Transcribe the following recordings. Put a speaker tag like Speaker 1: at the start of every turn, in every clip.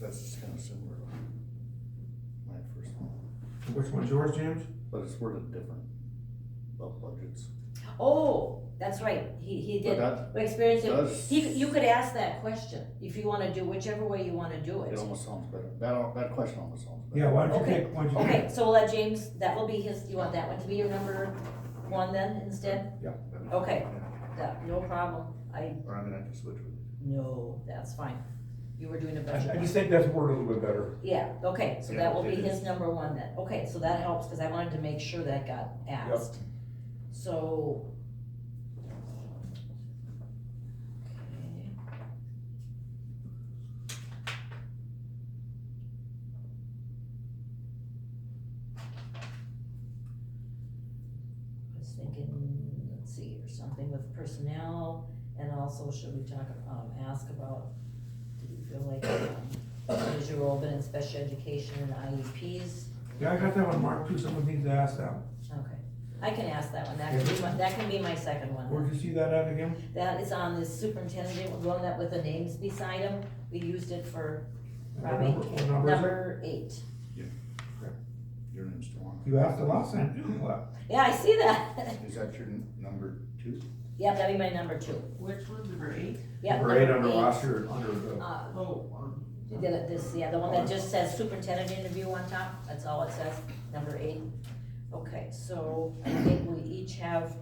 Speaker 1: That's just kinda similar to my first one,
Speaker 2: Which one's yours, James?
Speaker 1: but it's worded different, about budgets.
Speaker 3: Oh, that's right, he, he
Speaker 1: But
Speaker 3: did,
Speaker 1: that
Speaker 3: We experienced it,
Speaker 1: does.
Speaker 3: he, you could ask that question, if you wanna do whichever way you wanna do
Speaker 1: It
Speaker 3: it.
Speaker 1: almost sounds better, that, al- that question almost sounds better.
Speaker 2: Yeah, why don't you
Speaker 3: Okay.
Speaker 2: take, why don't you take?
Speaker 3: Okay, so we'll let James, that will be his, you want that one to be your number one then instead?
Speaker 2: Yeah.
Speaker 3: Okay, that, no problem, I,
Speaker 1: Or I'm gonna have to switch with it.
Speaker 3: no, that's fine, you were doing a better
Speaker 2: I
Speaker 3: job.
Speaker 2: just think that's worded a little bit better.
Speaker 3: Yeah, okay, so
Speaker 1: Yeah,
Speaker 3: that will be
Speaker 1: it
Speaker 3: his
Speaker 1: is.
Speaker 3: number one then, okay, so that helps, cause I wanted to make sure that got asked. So. Okay. I was thinking, let's see, or something with personnel, and also should we talk, um, ask about, do you feel like, um, is your role been in special education and IEPs?
Speaker 2: Yeah, I got that one marked too, someone needs to ask that.
Speaker 3: Okay, I can ask that one, that can be my, that can be my second one.
Speaker 2: Where'd you see that at again?
Speaker 3: That is on the superintendent, we're going that with the names beside him, we used it for Robbie,
Speaker 2: What number- what number is it?
Speaker 3: number eight.
Speaker 1: Your name's Dawn.
Speaker 2: You asked it last time, too, what?
Speaker 3: Yeah, I see that,
Speaker 1: Is that your n- number two?
Speaker 3: yeah, that'd be my number two,
Speaker 4: Which one, number eight?
Speaker 3: yeah,
Speaker 2: Number eight
Speaker 3: number
Speaker 2: under
Speaker 3: eight.
Speaker 2: roster, under the,
Speaker 3: Uh,
Speaker 4: Oh, um,
Speaker 3: You did it this, yeah, the one that just says superintendent interview on top, that's all it says, number eight. Okay, so I think we each have.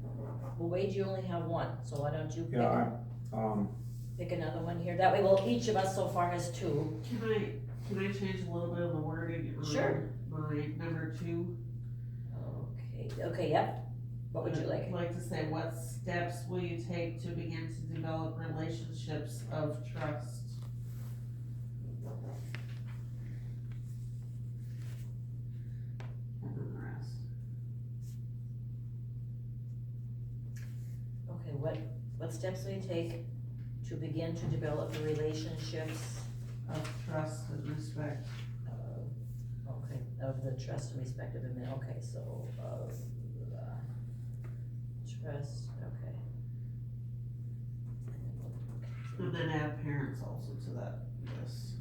Speaker 3: Well, Wade, you only have one, so why don't you
Speaker 2: yeah,
Speaker 3: pick,
Speaker 2: I, um,
Speaker 3: pick another one here, that way, well, each of us so far has two.
Speaker 4: Can I, can I change a little bit of the wording
Speaker 3: Sure.
Speaker 4: on my number two?
Speaker 3: Okay, okay, yep, what would you like?
Speaker 4: I'd like to say, what steps will you take to begin to develop relationships of trust? And then the rest.
Speaker 3: Okay, what, what steps will you take to begin to develop the relationships
Speaker 4: Of trust and respect.
Speaker 3: of, okay, of the trust and respect of admin, okay, so of, uh, trust, okay.
Speaker 4: And then add parents also to that, yes.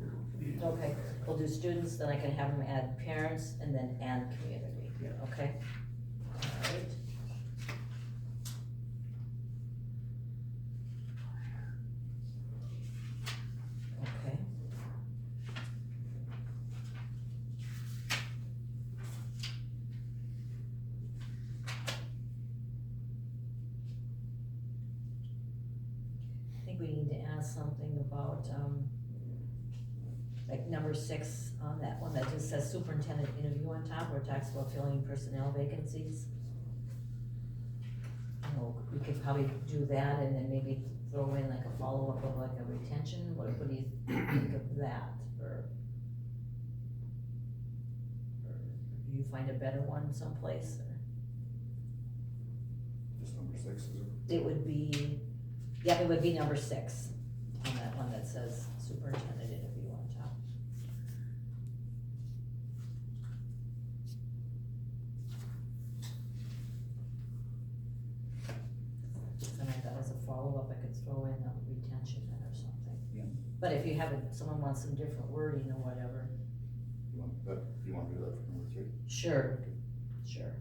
Speaker 4: You know, community.
Speaker 3: Okay, we'll do students, then I can have them add parents and then and community,
Speaker 4: Yeah.
Speaker 3: okay? Alright. Okay. I think we need to add something about, um, like number six on that one, that just says superintendent interview on top, where it talks about filling personnel vacancies. You know, we could probably do that and then maybe throw in like a follow-up of like a retention, what, what do you think of that, or? or Do you find a better one someplace, or?
Speaker 1: Just number six, is it?
Speaker 3: It would be, yeah, it would be number six on that one that says superintendent interview on top. And I thought as a follow-up, I could throw in a retention then or something.
Speaker 1: Yeah.
Speaker 3: But if you have, a- someone wants some different wording or whatever,
Speaker 1: You want that, you wanna do that for number three?
Speaker 3: sure, sure.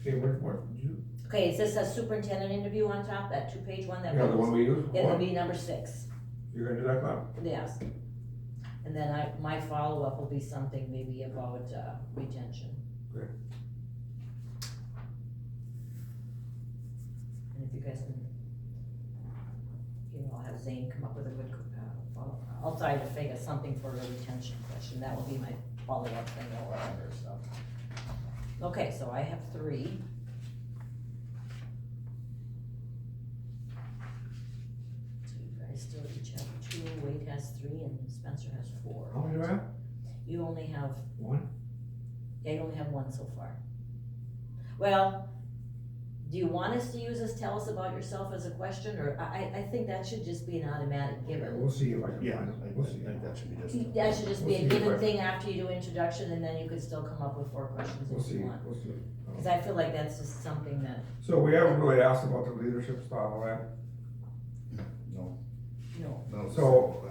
Speaker 2: okay, what, what, did you?
Speaker 3: Okay, it says a superintendent interview on top, that two-page one that.
Speaker 2: Yeah, the one we use?
Speaker 3: It would
Speaker 2: What?
Speaker 3: be number six.
Speaker 2: You're gonna do that, Clem?
Speaker 3: Yes. And then I, my follow-up will be something maybe about uh, retention.
Speaker 2: Great.
Speaker 3: And if you guys can, you know, I'll have Zane come up with a good, uh, follow- I'll try to figure something for a retention question, that will be my follow-up thing or whatever, so. Okay, so I have three. So you guys still each have two, Wade has three and Spencer has four.
Speaker 2: How many do I have?
Speaker 3: You only have,
Speaker 2: One?
Speaker 3: yeah, you only have one so far. Well, do you want us to use this, tell us about yourself as a question, or I, I, I think that should just be an automatic
Speaker 2: Okay,
Speaker 3: given.
Speaker 2: We'll see if I can
Speaker 1: Yeah, I
Speaker 2: find it,
Speaker 1: I
Speaker 2: we'll see.
Speaker 1: think that should be just.
Speaker 3: That should just be a
Speaker 2: We'll see if I-
Speaker 3: given thing after you do introduction, and then you could still come up with four questions
Speaker 2: We'll
Speaker 3: if
Speaker 2: see,
Speaker 3: you want.
Speaker 2: we'll see.
Speaker 3: Cause I feel like that's just something that,
Speaker 2: So we haven't really asked about the leadership style, right?
Speaker 1: No,
Speaker 5: No.
Speaker 6: No, it's-
Speaker 1: So,